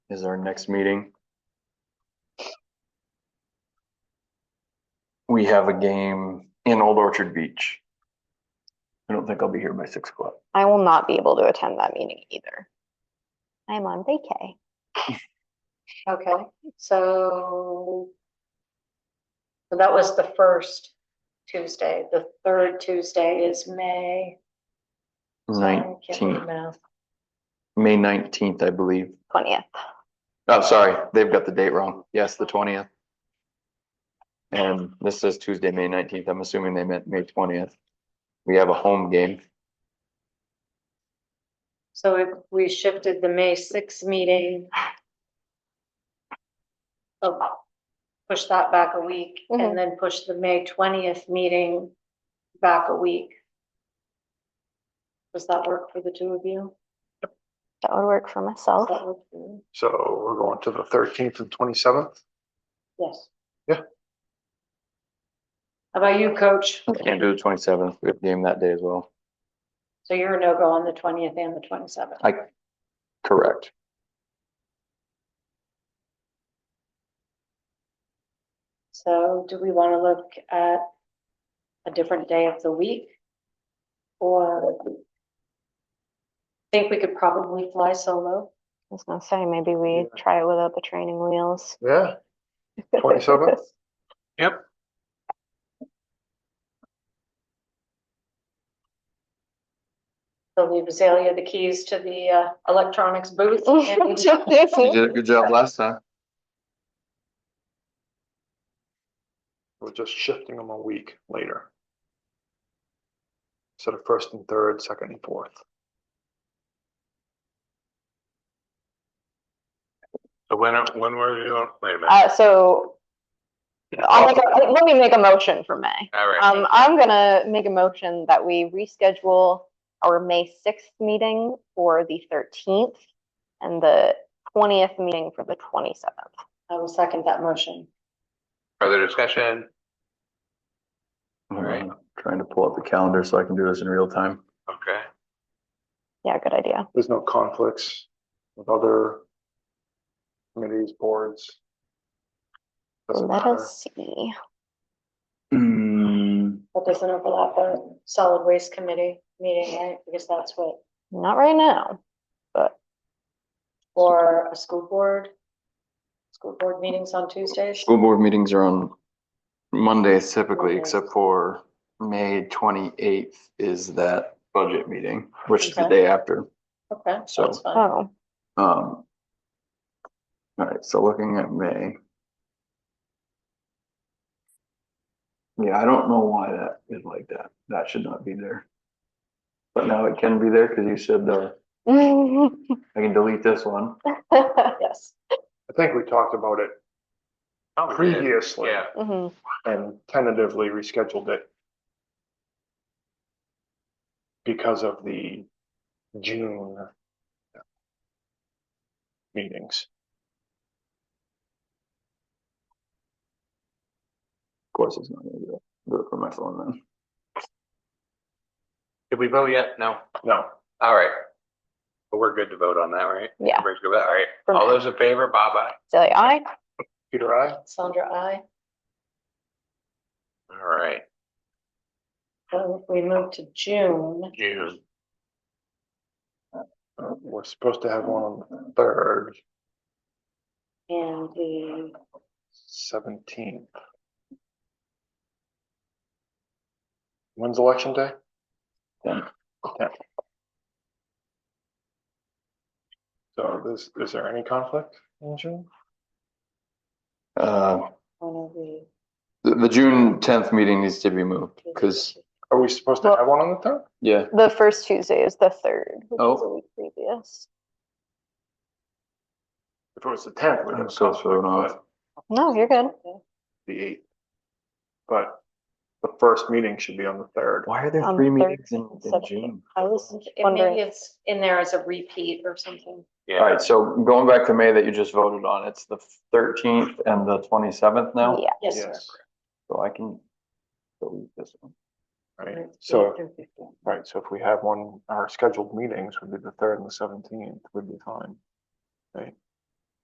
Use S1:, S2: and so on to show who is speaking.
S1: is our next meeting. We have a game in Old Orchard Beach. I don't think I'll be here by six o'clock.
S2: I will not be able to attend that meeting either. I'm on vacay.
S3: Okay, so. so That was the first Tuesday. The third Tuesday is May. so I can't do
S1: Nineteenth,
S3: math.
S1: May nineteenth, I believe.
S2: Twentieth.
S1: Oh, sorry, they've got the date wrong. Yes, the twentieth. And this says Tuesday, May nineteenth. I'm assuming they meant May twentieth. We have a home game.
S3: So if we shifted the May sixth meeting. oh, Push that back a week
S2: Mhm.
S3: and then push the May twentieth meeting back a week. Does that work for the two of you?
S2: That would work for
S3: Does
S2: myself.
S3: that work for you?
S4: So we're going to the thirteenth and twenty-seventh?
S3: Yes.
S4: Yeah.
S3: How about you, coach?
S1: Can't do the twenty-seventh. We have a game that day as well.
S3: So you're a no-go on the twentieth and the twenty-seventh.
S1: I, correct.
S3: So do we want to look at a different day of the week? Or think we could probably fly solo?
S2: I was gonna say, maybe we
S4: Yeah.
S2: try it without the training wheels.
S4: Yeah, twenty-seventh? Yep.
S3: So leave Azalea the keys to the uh, electronics booth. and-
S1: You did a good job last time.
S4: We're just shifting them a week later. Instead of first and third, second and fourth.
S5: So When, are- when were you, on- wait a minute,
S2: Uh, so I'll make a, let me make a motion for May.
S5: all right,
S2: Um, I'm gonna make a motion that we reschedule our May sixth meeting for the thirteenth and the twentieth meeting for the twenty-seventh.
S3: I will second that motion.
S5: further discussion,
S1: All
S5: right.
S1: Uh, Trying to pull up the calendar so I can do this in real time.
S5: okay,
S2: Yeah, good idea.
S4: There's no conflicts with other committees, boards. Doesn't
S2: Let
S4: matter.
S2: us see.
S3: That doesn't overlap our solid waste committee meeting, right? Because that's what,
S2: Not right now.
S3: or a school board? School board meetings on Tuesdays?
S1: School board meetings are on Mondays typically,
S3: Mondays.
S1: except for May twenty-eighth is that budget meeting, which is the
S3: Okay.
S1: day after.
S3: Okay,
S1: So-
S3: that's fine.
S2: Oh,
S1: Um. All right, so looking at May. Yeah, I don't know why that is like that. That should not be there. But now it can be there because you said the,
S2: Mm-hmm.
S1: I can delete this one.
S2: Mhm.
S3: Yes.
S4: I think we talked about it
S5: Probably Oh, did.
S4: previously
S5: yeah,
S4: and tentatively rescheduled it. Because of the June. Meetings.
S1: Of course, it's not gonna do it. Do it for my phone then.
S5: did we vote yet? Oh, No,
S4: No,
S5: all right. But We're good to vote on that, right?
S2: Yeah.
S5: Everybody's good, all right,
S2: For
S5: all
S2: now.
S5: those in favor, bye bye,
S2: Silly eye.
S4: Peter, I,
S3: Sandra, I,
S5: all right,
S3: so if um, we move to June,
S5: June,
S4: we're supposed to have one on the third,
S3: and the,
S4: seventeenth. When's election day?
S1: Tenth.
S4: Tenth. So is, is there any conflict in June?
S1: Uh,
S3: one of the.
S1: The, the June tenth meeting needs to be moved, because,
S4: Are we supposed to
S2: Well-
S4: have one on the third?
S1: yeah,
S2: The first Tuesday is the third, which is a
S1: Oh.
S2: week previous.
S4: If it was the tenth, we'd
S1: I'm
S4: have
S1: so
S4: conflict,
S1: thrown off.
S4: but
S2: No, you're good.
S4: The eighth. But the first meeting should be on the third.
S1: why are there
S2: On
S1: three
S2: the third
S1: meetings in, in
S2: subject.
S1: June?
S2: I was
S3: And
S2: wondering.
S3: maybe it's in there as a repeat or something.
S1: All
S5: yeah,
S1: right, so going back to May that you just voted on, it's the thirteenth and the twenty-seventh now,
S2: Yeah,
S3: Yes. sir.
S1: so I can delete this one.
S4: Right,
S3: Right,
S4: so,
S3: through 15.
S4: right, so if we have one, our scheduled meetings would be the third and the seventeenth would be fine.